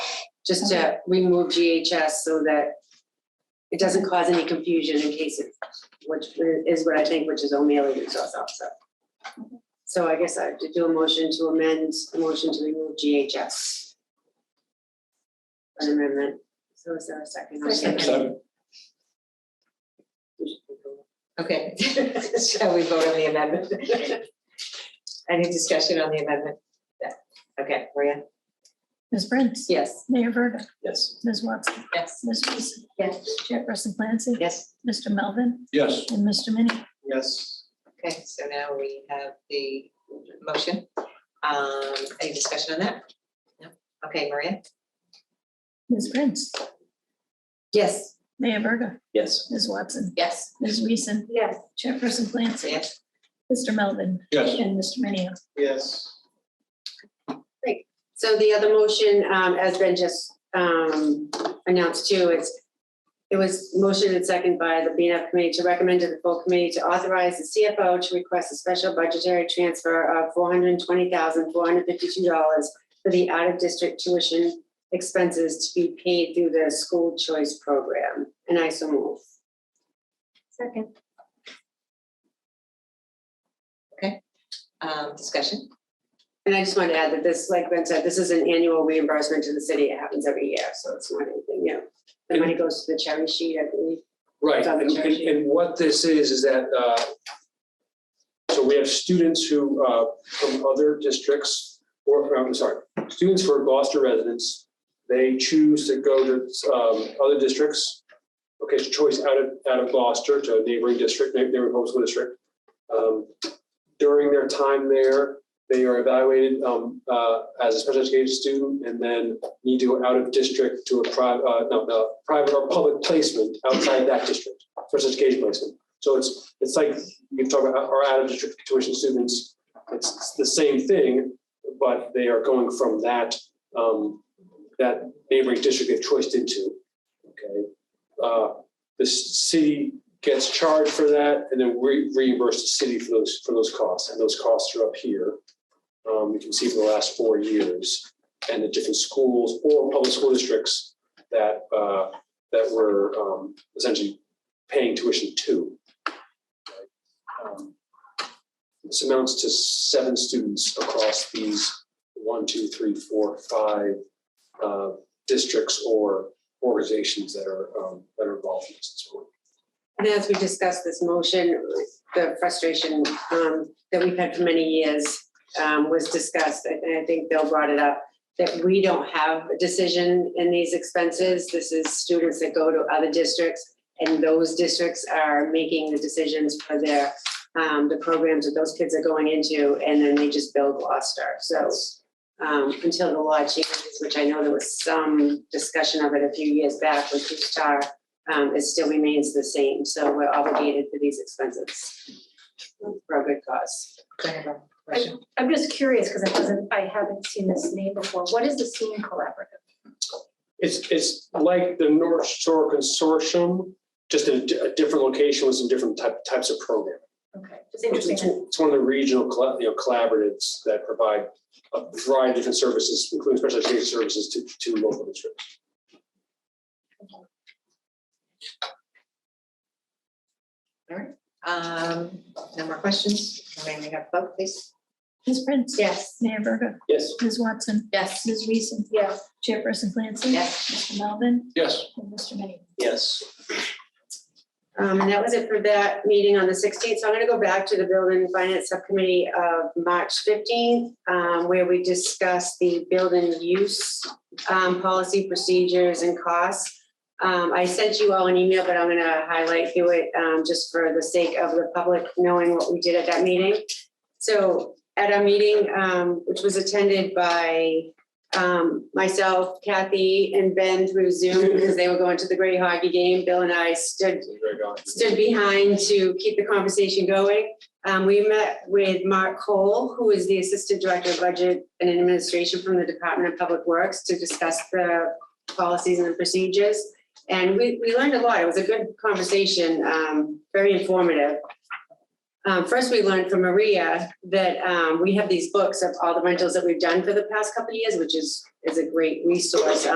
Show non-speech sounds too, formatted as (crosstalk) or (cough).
just to remove GHS so that it doesn't cause any confusion in case it, which is what I think, which is O'Malley Resource Officer. So I guess I have to do a motion to amend, a motion to remove GHS. An amendment, so is there a second? Second. Okay, (laughs) shall we vote on the amendment? Any discussion on the amendment? Yeah. Okay, Maria? Ms. Prince? Yes. Mayor Verda? Yes. Ms. Watson? Yes. Ms. Wiesen? Yes. Chairperson Clancy? Yes, Mr. Melvin? Yes. And Mr. Minnie? Yes. okay, so now we have the motion. Um, any discussion on that? No. Okay, Maria? Ms. Prince? Yes. Mayor Verda? Yes. Ms. Watson? Yes. Ms. Wiesen? Yes. Chairperson Clancy? Yes, Mr. Melvin? Yes. And Mr. Minio? Yes. So the other motion, um, has been just, um, announced too, it's, it was motion and second by the BNF committee to recommend to the full committee to authorize the CFO to request a special budgetary transfer of four hundred and twenty thousand, four hundred and fifty-two dollars for the out-of-district tuition expenses to be paid through the school choice program, and I so move. Second, um, discussion? And I just want to add that this, like Ben said, this is an annual reimbursement to the city, it happens every year, so it's not anything new. The money goes to the cherry sheet, I believe. Right, It's on the and, check and- sheet. and what this is, is that, uh, so we have students who, uh, from other districts, or, um, I'm sorry, students who are Gloucester residents, they choose to go to, um, other districts. Okay, it's a choice out of, out of Gloucester to a neighboring district, neigh- neighboring homeschool district. Um, During their time there, they are evaluated, um, uh, as a special education student and then need to go out of district to a private, uh, no, no, private or public placement outside that district, special education placement. So it's, it's like, you talk about our out of district tuition students, it's it's the same thing, but they are going from that, um, that neighboring district they've choiced into. Okay, uh, the s- city gets charged for that and then we reimburse the city for those, for those costs, and those costs are up here. Um, you can see for the last four years and the different schools or public school districts that, uh, that we're um, essentially paying tuition to. Um, This amounts to seven students across these one, two, three, four, five uh, districts or organizations that are, um, that are involved in this. And as we discussed this motion, the frustration um, that we've had for many years um, was discussed, and and I think Bill brought it up, that we don't have a decision in these expenses. This is students that go to other districts, and those districts are making the decisions for their, um, the programs that those kids are going into, and then they just build Gloucester. So um, until the law changes, which I know there was some discussion of it a few years back with Star um, it still remains the same, so we're obligated for these expenses for a good cause. Go ahead, Maria. Motion. I'm just curious because I wasn't, I haven't seen this name before. What is the SEEM Collaborative? It's, it's like the North Shore Consortium, just in a di- a different location with some different type, types of programs. Okay, It's, just it's interesting. it's one of the regional, colla- you know, collaboratives that provide a variety of different services, including special education services to, to local districts. Um, no more questions? May we have a vote, please? Ms. Prince? Yes, Mayor Verda? Yes. Ms. Watson? Yes. Ms. Wiesen? yeah, Chairperson Clancy? Yes. Mr. Melvin? Yes. And Mr. Minio? Yes. Um, and that was it for that meeting on the sixteenth, so I'm gonna go back to the Building and Finance Subcommittee of March fifteenth, um, where we discussed the building use, um, policy procedures and costs. Um, I sent you all an email, but I'm gonna highlight through it, um, just for the sake of the public knowing what we did at that meeting. So at our meeting, um, which was attended by, um, myself, Kathy, and Ben through Zoom, because they were going to the Great Hockey game, Bill and I stood stood behind to keep the conversation going. Um, we met with Mark Cole, who is the Assistant Director of Budget and Administration from the Department of Public Works to discuss the policies and the procedures. And we, we learned a lot. It was a good conversation, um, very informative. Um, first, we learned from Maria that, um, we have these books of all the rentals that we've done for the past couple of years, which is, is a great resource